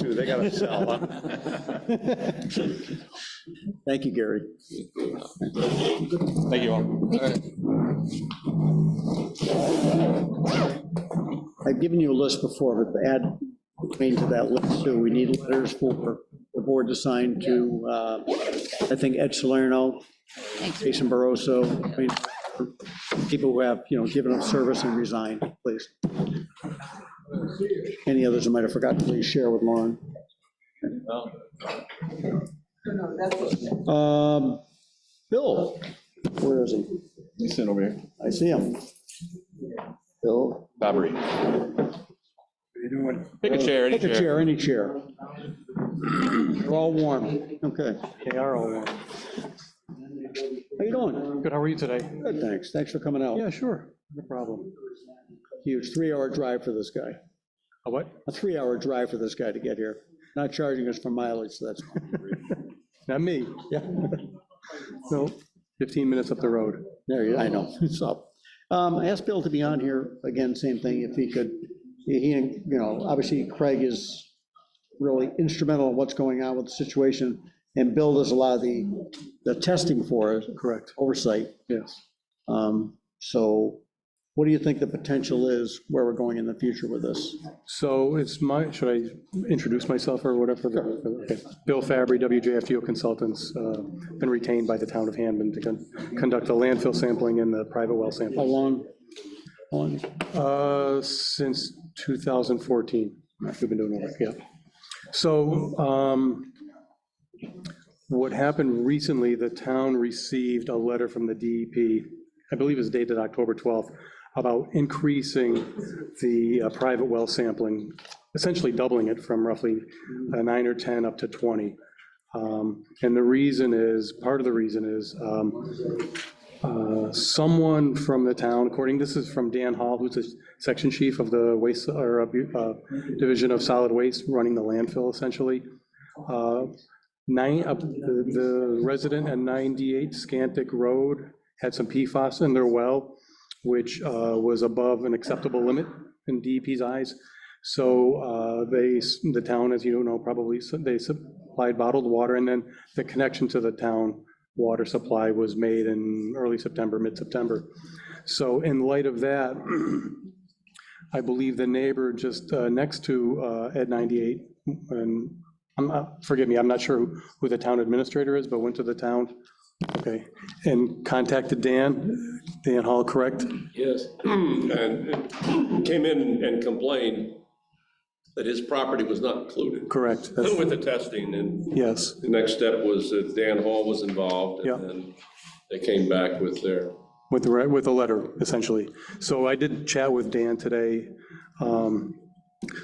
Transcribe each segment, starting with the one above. they gotta sell them. Thank you, Gary. Thank you all. I've given you a list before, but to add Wayne to that list too. We need letters for the board to sign to, uh, I think, Ed Salerno, Thanks. Jason Barroso, Wayne, people who have, you know, given up service and resigned, please. Any others I might have forgotten, please share with Lauren. Um, Bill, where is he? He's sitting over here. I see him. Bill? Bobbery. Pick a chair, any Pick a chair. chair, any chair. They're all warm, okay. They are all warm. How you doing? Good, how are you today? Good, thanks, thanks for coming out. Yeah, sure, no problem. Huge, three-hour drive for this guy, A what? a three-hour drive for this guy to get here. Not charging us for mileage, so that's, Not me. yeah, No, 15 minutes up the road. there you, I know, it's up. Um, I asked Bill to be on here, again, same thing, if he could, he, and, you know, obviously Craig is really instrumental in what's going on with the situation, and Bill does a lot of the, the testing for us, Correct, oversight. yes. Um, So what do you think the potential is, where we're going in the future with this? So it's my, should I introduce myself or whatever? Okay. Bill Fabry, WJFGO Consultants, uh, been retained by the town of Hanman to con- conduct the landfill sampling and the private well How sampling. long? how long? Uh, Since 2014, we've been doing it, yeah. So um, what happened recently, the town received a letter from the DEP, I believe it's dated October 12th, about increasing the uh, private well sampling, essentially doubling it from roughly uh, nine or 10 up to 20. Um, And the reason is, part of the reason is, um, uh, someone from the town, according, this is from Dan Hall, who's the section chief of the waste, or uh, uh, Division of Solid Waste, running the landfill essentially. Uh, Nine, uh, the the resident at 98 Scantic Road had some PFAS in their well, which uh, was above an acceptable limit in DEP's eyes. So uh, they, the town, as you know, probably, su- they supplied bottled water, and then the connection to the town water supply was made in early September, mid-September. So in light of that, I believe the neighbor just uh, next to uh, Ed 98, and, I'm not- forgive me, I'm not sure who- who the town administrator is, but went to the town, okay, and contacted Dan, Dan Hall, correct? Yes, and came in and complained that his property was not included Correct, that's- with the testing, and yes, the next step was that Dan Hall was involved, Yeah. and then they came back with their, with the, re- with the letter, essentially. So I did chat with Dan today. Um,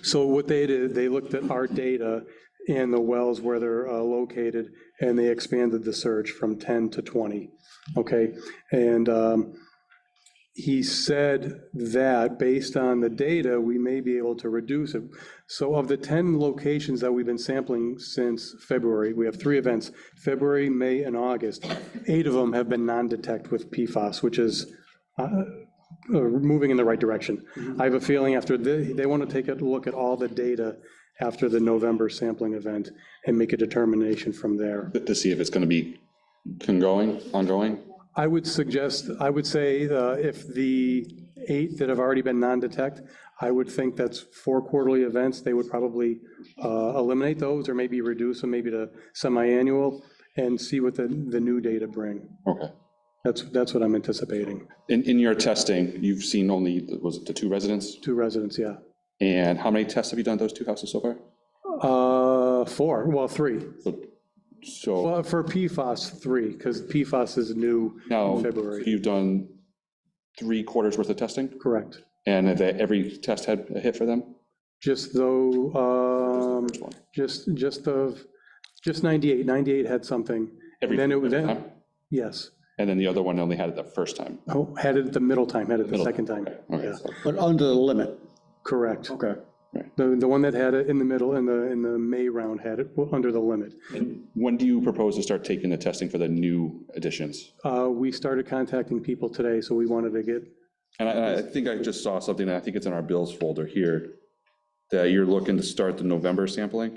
So what they did, they looked at our data and the wells where they're uh, located, and they expanded the search from 10 to 20, okay? And um, he said that, based on the data, we may be able to reduce it. So of the 10 locations that we've been sampling since February, we have three events, February, May, and August. Eight of them have been non-detect with PFAS, which is uh, uh, moving in the right direction. I have a feeling after, the- they want to take a look at all the data after the November sampling event and make a determination from there. To see if it's gonna be ongoing, ongoing? I would suggest, I would say uh, if the eight that have already been non-detect, I would think that's four quarterly events, they would probably uh, eliminate those or maybe reduce them, maybe to semi-annual and see what the, the new data bring. Okay. That's, that's what I'm anticipating. In, in your testing, you've seen only, was it the two residents? Two residents, yeah. And how many tests have you done at those two houses so far? Uh, Four, well, three. So- So Well, for PFAS, three, because PFAS is new now, in February. you've done three quarters worth of testing? Correct. And have they- every test had a hit for them? Just though, um, one. just, just of, just 98, 98 had something. Every- And then it was, every then- time? yes. And then the other one only had it the first time? Oh, Had it the middle time, had it the second time. Okay, Yeah, so- But under the limit? Correct. Okay. The, the one that had it in the middle, in the, in the May round had it under the limit. When do you propose to start taking the testing for the new additions? Uh, We started contacting people today, so we wanted to get, And I, and I think I just saw something, and I think it's in our bills folder here, that you're looking to start the November sampling?